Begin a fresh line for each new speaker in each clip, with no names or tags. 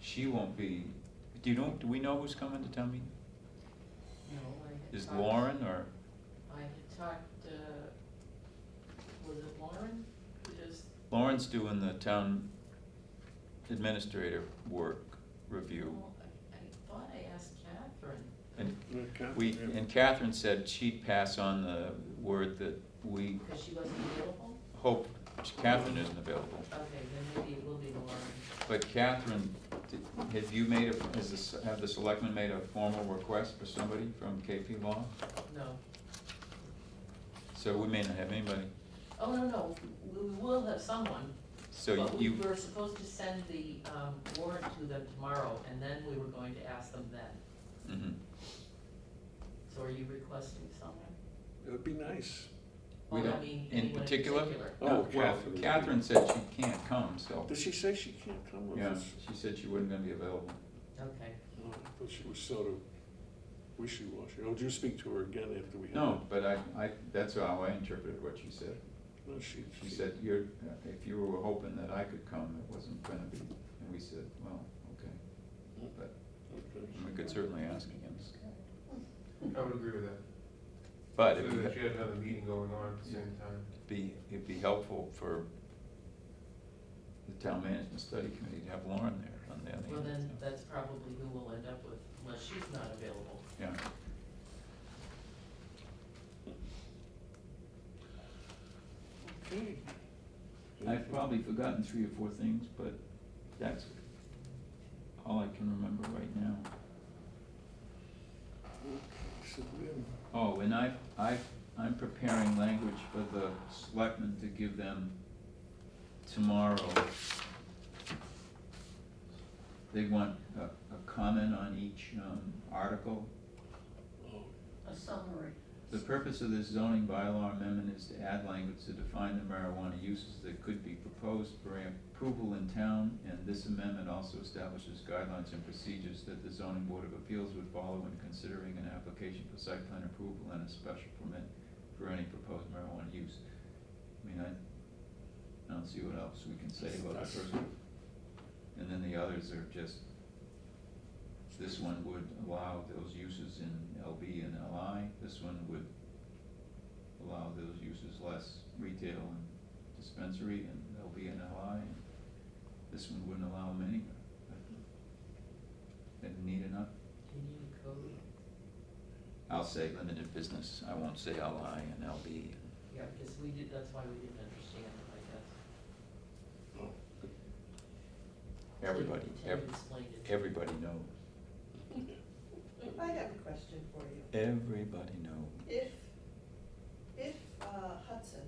she won't be, do you know, do we know who's coming to town meeting?
No, I had
Is
talked-
Lauren or,
I had talked, uh, was it Lauren? Who does,
Lauren's doing the town administrator work review.
well, I, I thought I asked Catherine.
And
Okay.
we, and Catherine said she'd pass on the word that we
Because she wasn't available?
hope Catherine isn't available.
Okay, then maybe it will be Lauren.
But Catherine, did- have you made a, has this, have the selectmen made a formal request for somebody from KP Law?
No.
So we may not have anybody.
Oh, no, no, we we will have someone.
So
But we
you,
were supposed to send the um, warrant to them tomorrow, and then we were going to ask them then.
mhm.
So are you requesting someone?
It would be nice.
we
Well, I
don't,
mean, anyone
in particular?
Oh,
No, well,
Catherine.
Catherine said she can't come, so,
Did she say she can't come with
yeah,
us?
she said she wasn't gonna be available.
Okay,
No, I thought she was sort of wishy-washy. Oh, did you speak to her again after we had?
No, but I, I, that's how I interpreted what she said.
No, she.
She said, you're, if you were hoping that I could come, it wasn't gonna be, and we said, well, okay, but
Okay.
we could certainly ask again.
I would agree with that.
But
So
it'd
that
be,
you had another meeting going on at the same time.
be- it'd be helpful for the town management study committee to have Lauren there on the other end.
well then, that's probably who we'll end up with, unless she's not available.
Yeah.
Okay.
I've probably forgotten three or four things, but that's all I can remember right now.
Okay, so then,
Oh, and I've, I've, I'm preparing language for the selectmen to give them tomorrow. They want a, a comment on each, um, article.
oh,
A summary.
The purpose of this zoning bylaw amendment is to add language to define the marijuana uses that could be proposed for approval in town, and this amendment also establishes guidelines and procedures that the zoning board of appeals would follow when considering an application for site plan approval and a special permit for any proposed marijuana use. I mean, I, I don't see what else we can say about that first one. And then the others are just, this one would allow those uses in LB and LI, this one would allow those uses less retail and dispensary and LB and LI, and this one wouldn't allow them anywhere. Didn't need enough,
Do you need a code?
I'll say limited business, I won't say LI and LB.
Yeah, because we did, that's why we didn't understand it, I guess.
oh,
Everybody,
Tim
ev-
explained it.
everybody knows,
yeah.
I have a question for you.
everybody knows.
If, if uh, Hudson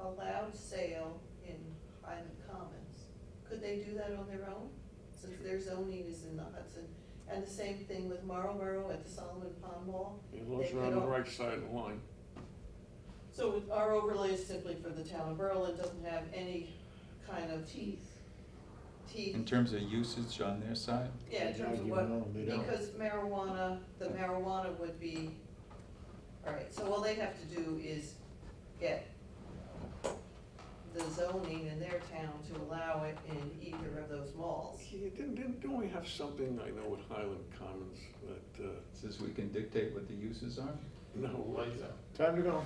allowed sale in Highland Commons, could they do that on their own? Since their zoning is in the Hudson, and the same thing with Marlboro at the Solomon Pond Mall?
As long as
They
you're on the
could al-
right side of the line.
So it- our overlay is simply for the town of Berlin, doesn't have any kind of teeth, teeth.
In terms of usage on their side,
Yeah, in
They
terms of
don't, you
what,
don't, they don't.
because marijuana, the marijuana would be, all right, so all they have to do is get the zoning in their town to allow it in either of those malls.
Yeah, didn't, didn't, don't we have something, I know, with Highland Commons that, uh,
says we can dictate what the uses are?
no,
Lights out.
Time to go.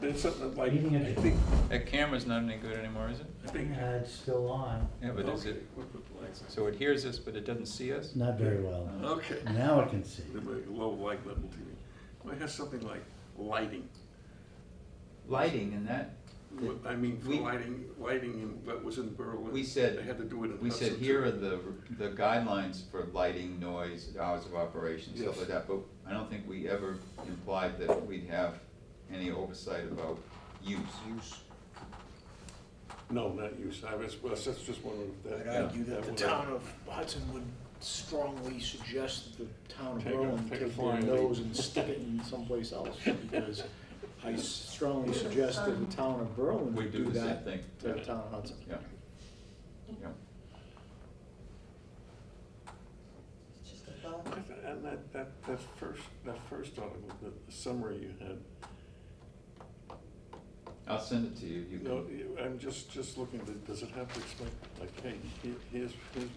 there's something like,
Meeting
I
adjourned.
think,
That camera's not any good anymore, is it?
I think.
Uh, It's still on,
Yeah, but is
Okay,
it,
we'll put the lights on.
so it hears us, but it doesn't see us?
not very well.
Okay.
Now I can see.
The very Low light level TV. Well, it has something like lighting.
Lighting and that,
What- I mean, for
We-
lighting, lighting in, what was in Berlin.
We said-
They had to do it in.
we said
Hudson, too.
here are the, the guidelines for lighting, noise, hours of operation, stuff
Yes.
like that, but I don't think we ever implied that we'd have any oversight about use. Use.
No, not you, I was, well, that's just one of the.
I'd
yeah,
argue
that
that the
would-
town of Hudson would strongly suggest that the town of
Take a-
Berlin
take a
take their
flying leap.
nose and stick it in someplace else, because I strongly suggest that the town of Berlin
We
would
do
do
the same
that
thing,
to the town of Hudson.
yeah. Yeah,
It's just a thought.
I th- And that, that, that first, that first article, the summary you had,
I'll send it to you, you can.
no, you- I'm just, just looking, does it have to explain, like, hey, here- here's, here's